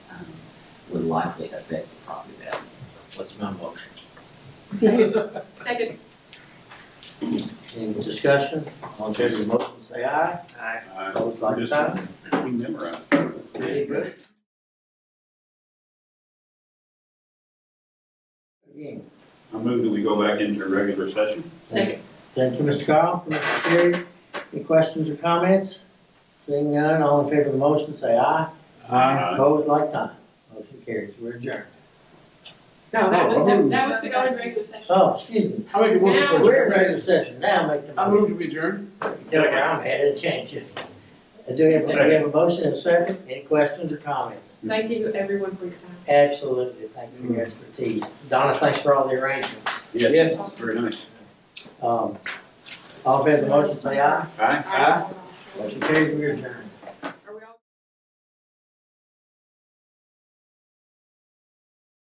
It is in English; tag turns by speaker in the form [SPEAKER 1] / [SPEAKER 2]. [SPEAKER 1] um, likely to affect the property value. What's my motion?
[SPEAKER 2] Second.
[SPEAKER 1] Any discussion? All in favor of the motion, say aye.
[SPEAKER 2] Aye.
[SPEAKER 1] Opposed, like sign.
[SPEAKER 3] We memorized.
[SPEAKER 1] Very good. Again,
[SPEAKER 3] I move that we go back into regular session.
[SPEAKER 2] Second.
[SPEAKER 1] Thank you, Mr. Carl, Mr. Terry. Any questions or comments? Seeing none, all in favor of the motion, say aye.
[SPEAKER 3] Uh,
[SPEAKER 1] Opposed, like sign. Motion carries, we're adjourned.
[SPEAKER 2] No, that was,
[SPEAKER 4] Oh,
[SPEAKER 2] the- that was the going regular session.
[SPEAKER 1] Oh, excuse me,
[SPEAKER 4] I make a motion
[SPEAKER 2] Now-
[SPEAKER 1] we're in
[SPEAKER 4] for adjournment.
[SPEAKER 1] regular session, now make the
[SPEAKER 4] I
[SPEAKER 1] motion.
[SPEAKER 4] move to adjourn.
[SPEAKER 1] Tell where I'm headed, changes. I do have, we have a motion and a second, any questions or comments?
[SPEAKER 2] Thank you, everyone, for your time.
[SPEAKER 1] Absolutely, thank you for your expertise. Donna, thanks for all the arrangements.
[SPEAKER 3] Yes.
[SPEAKER 4] Yes.
[SPEAKER 3] Very nice.
[SPEAKER 1] Um, all in favor of the motion, say aye.
[SPEAKER 3] Aye.
[SPEAKER 1] Motion carries, we adjourn.